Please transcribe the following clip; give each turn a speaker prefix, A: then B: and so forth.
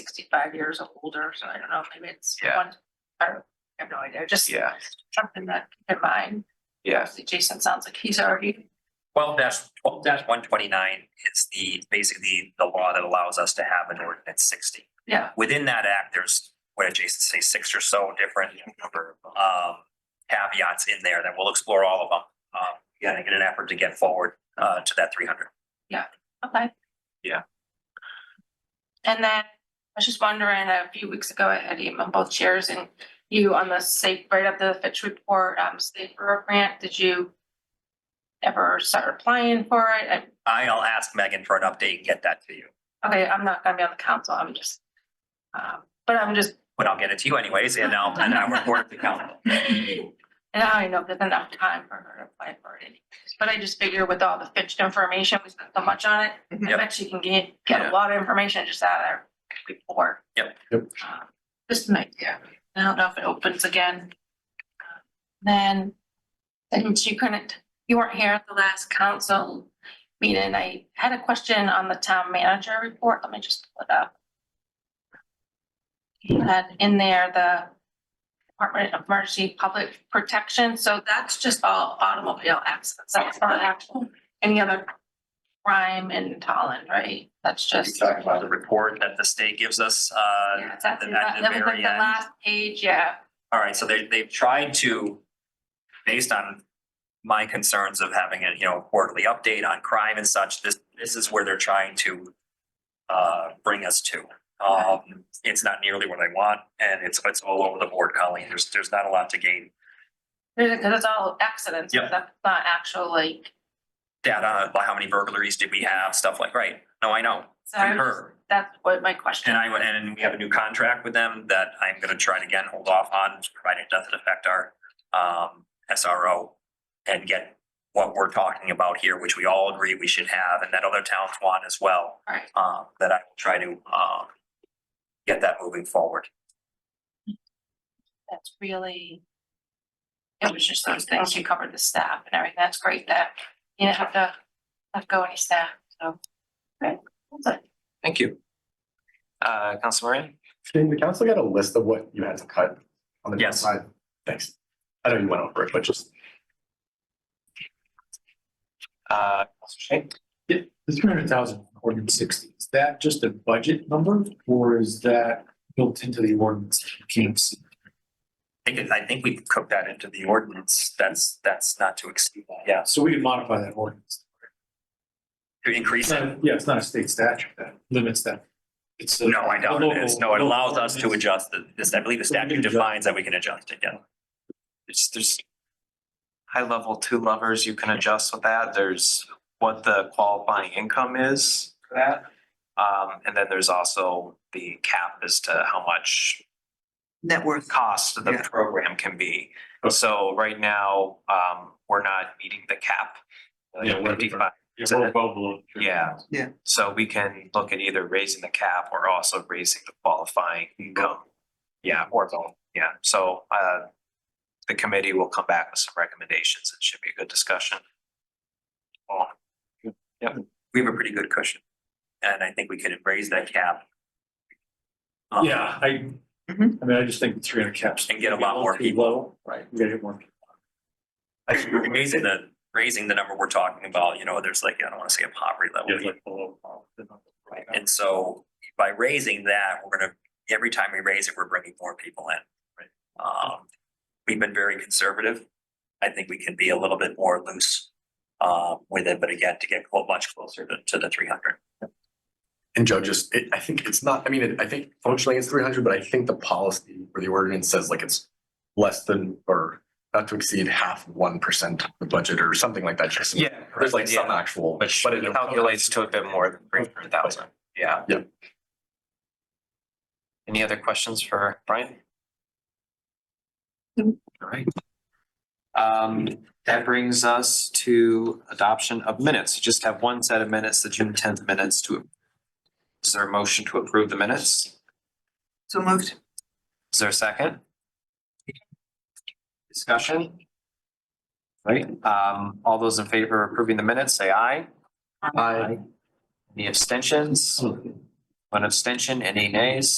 A: sixty-five years or older, so I don't know, maybe it's
B: Yeah.
A: one, I don't- I have no idea, just
B: Yeah.
A: something that keep in mind.
B: Yeah,
A: Obviously, Jason sounds like he's already,
C: Twelve twelve one twenty-nine is the, basically the law that allows us to have an ordinance sixty.
A: yeah,
C: Within that act, there's, what did Jason say, six or so different number, of, um, caveats in there that we'll explore all of them. Um, yeah, and get an effort to get forward, uh, to that three hundred.
A: okay.
B: Yeah.
A: And then I was just wondering, a few weeks ago, I had emailed both chairs and you on the safe, right up the Fitch report, um, safe Bureau grant, did you ever start applying for it? I-
C: I'll ask Megan for an update and get that to you,
A: Okay, I'm not gonna be on the council, I'm just, um, but I'm just
C: but I'll get it to you anyways, and I'll, and I'll report to council.
A: And I don't know if there's enough time for her to apply for it, but I just figure with all the Fitch information, we spent so much on it. I
C: Yep.
A: bet she can get, get
B: Yeah.
A: a lot of information just out of there before.
C: Yep.
D: Yep.
A: Um, Just an idea. I don't know if it opens again. Uh, Then, since you couldn't, you weren't here at the last council meeting, I had a question on the town manager report. Let me just pull it up. You had in there the Department of Emergency Public Protection, so that's just all automobile accidents, that's not actual, any other crime in Holland, right? That's just.
C: Talking about the report that the state gives us, uh,
A: Yeah, it's at the-
C: the- at
A: That
C: the
A: that was like
C: very
A: the
C: end.
A: last page, yeah,
C: All right, so they, they've tried to, based on my concerns of having a, you know, quarterly update on crime and such, this, this is where they're trying to uh, bring us to. Um, it's not nearly what I want and it's, it's all over the board, Colleen. There's, there's not a lot to gain
A: because it's all accidents,
C: Yep.
A: that's not actual like,
C: data on how many burglaries did we have, stuff like, right? No, I know.
A: so I'm just-
C: Concur.
A: that's what my question.
C: And I, would- and we have a new contract with them that I'm gonna try to again hold off on, provided it doesn't affect our um SRO. And get what we're talking about here, which we all agree we should have, and that other towns want as well,
A: Alright,
C: uh, that I will try to um. Get that moving forward.
A: that's really. It was just those things, you covered the staff and everything, that's great that you didn't have to let go any staff, so. Right, that's it.
E: Thank you. Uh, Council Moran?
D: Did the council get a list of what you had to cut on the
C: Yes.
D: side? Thanks. I know you went over it, but just.
E: Uh, Council Shank?
F: The three hundred thousand ordinance sixty, is that just a budget number or is that built into the ordinance? Can't see.
C: I think, I think we cooked that into the ordinance. That's, that's not to exceed that. Yeah,
F: So we can modify that ordinance.
C: to increase
F: It's
C: it.
F: not- Yeah, it's not a state statute that limits that. It's. uh, a-
C: No, I doubt
F: a
C: it
F: local-
C: is. No, it
F: local
C: allows us to
F: ordinance.
C: adjust the, this, I believe the
F: So we can
C: statute
F: adjust.
C: defines that we can adjust it, yeah.
E: It's, there's high level two levers you can adjust with that. There's what the qualifying income is for that. Um, and then there's also the cap as to how much
G: net worth.
E: cost of the program can be. So right now, um, we're not meeting the cap. Uh, like
F: Yeah, we're-
E: 55.
F: Yeah, we're well below.
E: Yeah.
G: Yeah.
E: So we can look at either raising the cap or also raising the qualifying
F: Mm-hmm.
E: income. Yeah, or both, yeah, so uh. The committee will come back with some recommendations, it should be a good discussion. Oh,
C: we have a pretty good cushion. And I think we could raise that cap. um,
F: Yeah, I, I mean,
G: Mhm.
F: I just think three hundred caps.
C: Mm-hmm. And get a lot more
F: Too
C: people.
F: low, Right, we gotta get more. people.
C: I think we're Raising the, raising the number we're talking about, you know, there's like, I don't wanna say a poverty level.
F: Yeah, like below, uh, the number.
C: Right, and so by raising that, we're gonna, every time we raise it, we're bringing more people in. Um, we've been very conservative. I think we can be a little bit more loose uh, with it, but again, to get clo- much closer to, to the three hundred.
D: And judges, it, I think it's not, I mean, it- I think functionally it's three hundred, but I think the policy or the ordinance says like it's less than or not to exceed half one percent of the budget or something like that. Just-
E: Yeah.
D: There's like some
E: yeah,
D: actual.
E: Which
D: but it-
E: calculates to a bit more than three hundred thousand, yeah.
D: Yeah.
E: Any other questions for Brian?
G: No.
E: Alright. Um, that brings us to adoption of minutes, just have one set of minutes, the June tenth minutes to. Is there a motion to approve the minutes?
G: So moved.
E: Is there a second? Discussion? Right, um, all those in favor of approving the minutes, say aye.
D: I-
E: Any abstentions? One abstention, any nays?